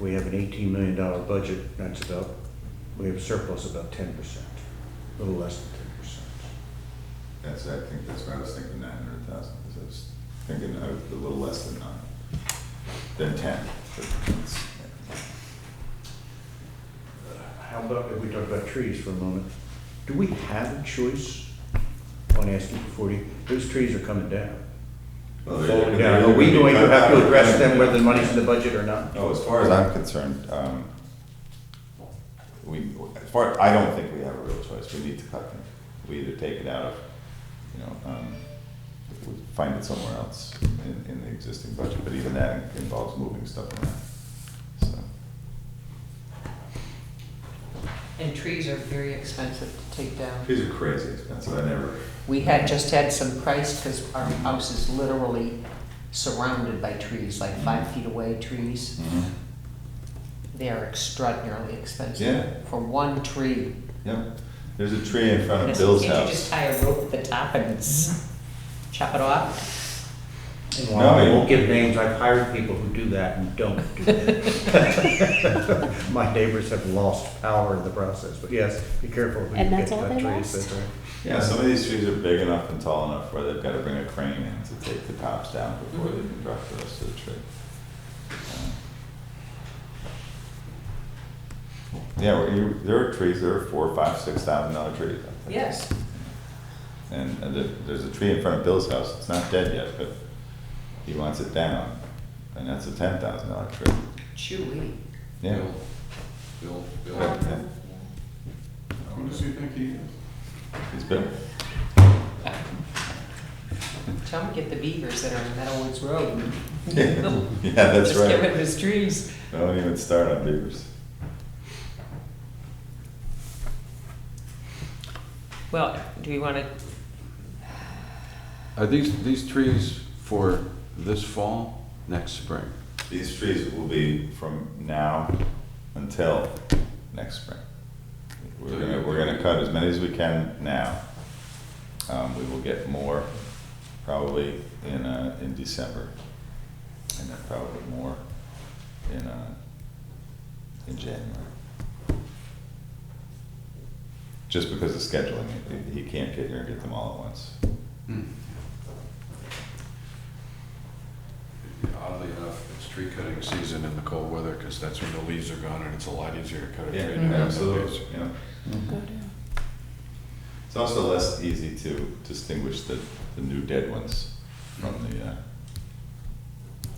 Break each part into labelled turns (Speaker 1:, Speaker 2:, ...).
Speaker 1: We have an eighteen million dollar budget, that's about, we have surplus about ten percent, a little less than ten percent.
Speaker 2: That's, I think that's why I was thinking nine hundred thousand, because I was thinking of a little less than nine, than ten. but it's-
Speaker 1: How about, if we talk about trees for a moment, do we have a choice on asking for forty? Those trees are coming down.
Speaker 2: Well, they're-
Speaker 1: Falling
Speaker 2: they're
Speaker 1: down, are we
Speaker 2: either
Speaker 1: going to
Speaker 2: gonna be
Speaker 1: have
Speaker 2: cut out
Speaker 1: to
Speaker 2: or
Speaker 1: address
Speaker 2: they're
Speaker 1: them
Speaker 2: gonna-
Speaker 1: whether the money's in the budget or not?
Speaker 2: No, as far as I'm concerned, um, we, as far, I don't think we have a real choice, we need to cut them. We either take it out of, you know, um, we find it somewhere else in, in the existing budget, but even that involves moving stuff around, so.
Speaker 3: And trees are very expensive to take down.
Speaker 2: These are crazy expensive, I never.
Speaker 3: We had, just had some price, because our house is literally surrounded by trees, like
Speaker 2: Mm-hmm.
Speaker 3: five feet away trees.
Speaker 2: Mhm.
Speaker 3: They are extraordinarily
Speaker 2: Yeah.
Speaker 3: expensive for one tree.
Speaker 2: Yep, there's a tree in front of
Speaker 3: Yes,
Speaker 2: Bill's
Speaker 3: Can't you just
Speaker 2: house.
Speaker 3: tie a rope at the top and s- chop it off?
Speaker 1: And while I
Speaker 2: No.
Speaker 1: won't give names, I've hired people who do that and don't do that. My neighbors have lost power in the process, but yes, be careful. who you
Speaker 4: And
Speaker 1: get
Speaker 4: that's
Speaker 1: to
Speaker 4: all
Speaker 1: cut
Speaker 4: they
Speaker 1: trees,
Speaker 4: lost?
Speaker 1: that's right.
Speaker 2: Yeah, some of these trees are big enough and tall enough where they've gotta bring a crane in to take the tops down before they can drop the rest of the tree. Yeah, well, you, there are trees, there are four, five, six thousand dollar trees out there.
Speaker 3: Yes.
Speaker 2: And, and there- there's a tree in front of Bill's house, it's not dead yet, but he wants it down, and that's a ten thousand dollar tree,
Speaker 3: Chewy.
Speaker 2: yeah.
Speaker 5: Bill, Bill, Bill.
Speaker 2: But, yeah,
Speaker 5: Who does he think he is?
Speaker 2: He's Bill,
Speaker 3: Tell him to get the beavers that are on Meadowwoods Road.
Speaker 2: yeah, that's
Speaker 3: Just
Speaker 2: right.
Speaker 3: get rid of his trees.
Speaker 2: I don't even start on beavers.
Speaker 3: Well, do we want to,
Speaker 5: Are these, these trees for this fall, next spring?
Speaker 2: These trees will be from now until next spring. We're gonna, we're gonna cut as many as we can now. Um, we will get more probably in, uh, in December. And then probably more in, uh, in January. Just because of scheduling, he- he can't get here and get them all at once. Hmm.
Speaker 6: Oddly enough, it's tree cutting season in the cold weather because that's when the leaves are gone and it's a lot easier to cut a tree.
Speaker 2: Yeah,
Speaker 6: down
Speaker 2: absolutely,
Speaker 6: nowadays.
Speaker 2: yeah.
Speaker 1: Mm-hmm.
Speaker 4: Go down.
Speaker 2: It's also less easy to distinguish the, the new dead ones from the, uh,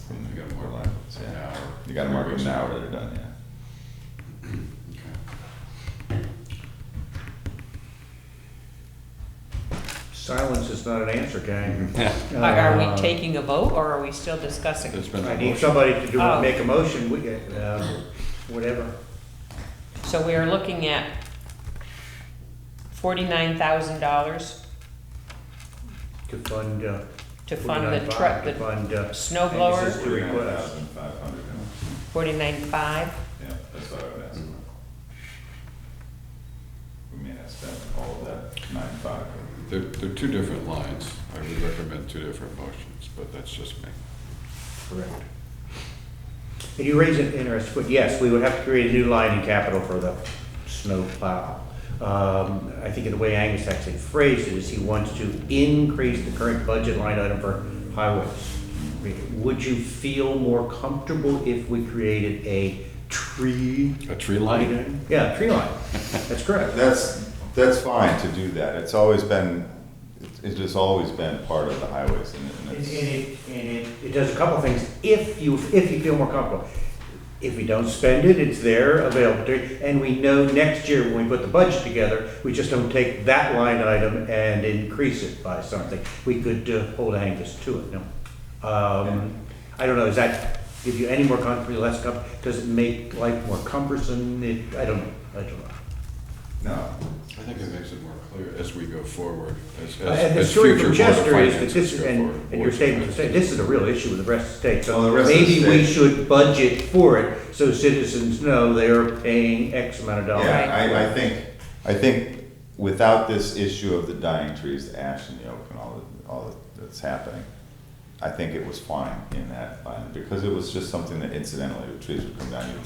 Speaker 2: from
Speaker 6: You
Speaker 2: the
Speaker 6: gotta
Speaker 2: more
Speaker 6: mark
Speaker 2: live ones,
Speaker 6: them
Speaker 2: yeah.
Speaker 6: now or-
Speaker 2: You gotta mark them now or they're done, yeah.
Speaker 6: Okay.
Speaker 1: Silence is not an answer, gang.
Speaker 3: are are
Speaker 1: Uh,
Speaker 3: we taking a vote, or are we still discussing?
Speaker 6: There's been a
Speaker 1: I need
Speaker 6: motion.
Speaker 1: somebody to do,
Speaker 3: Oh.
Speaker 1: make a motion, we, uh, whatever.
Speaker 3: So we are looking at forty-nine thousand dollars
Speaker 1: to fund, uh.
Speaker 3: to fund the
Speaker 1: 49.5,
Speaker 3: truck,
Speaker 1: To
Speaker 3: the
Speaker 1: fund, uh,
Speaker 3: snow
Speaker 1: Hey,
Speaker 3: blower,
Speaker 1: this is- Three requests.
Speaker 2: five hundred,
Speaker 3: forty-nine-five.
Speaker 2: yeah, that's what I would ask. We may not spend all of that nine five.
Speaker 6: They're, they're two different lines. I would recommend two different motions, but that's just me.
Speaker 1: correct. And you raise an interesting point, yes, we would have to create a new line in capital for the snow plow. Um, I think the way Angus actually phrased it is he wants to increase the current budget line item for highways. Would you feel more comfortable if we created a tree
Speaker 6: A tree line?
Speaker 1: Yeah, tree line, that's correct.
Speaker 2: That's, that's fine to do that, it's always been, it's- it's just always been part of the highways and and
Speaker 1: And and
Speaker 2: it's.
Speaker 1: it, and it, it does a couple of things, if you, if you feel more comfortable. If we don't spend it, it's there available, to- and we know next year when we put the budget together, we just don't take that line item and increase it by something. We could uh, hold Angus to it, no. Um, I don't know, is that, give you any more comfort, less comfort, does it make life more cumbersome? It- I don't know, I don't know.
Speaker 2: No,
Speaker 6: I think it makes it more clear as we go forward, as,
Speaker 1: Uh, And
Speaker 6: as,
Speaker 1: the
Speaker 6: as
Speaker 1: story
Speaker 6: future
Speaker 1: from
Speaker 6: board of
Speaker 1: Chester is that
Speaker 6: finances
Speaker 1: this,
Speaker 6: go
Speaker 1: and,
Speaker 6: forward.
Speaker 1: and your statement, was saying, this is a real issue with the rest of the state,
Speaker 2: Well, the
Speaker 1: so
Speaker 2: rest of the
Speaker 1: maybe we
Speaker 2: state-
Speaker 1: should budget for it, so citizens know they're paying X amount of dollars.
Speaker 2: Yeah, I, I think, I think without this issue of the dying trees, the ash and the oak and all, that- all that's happening, I think it was fine in that line, because it was just something that incidentally, the trees would come down, you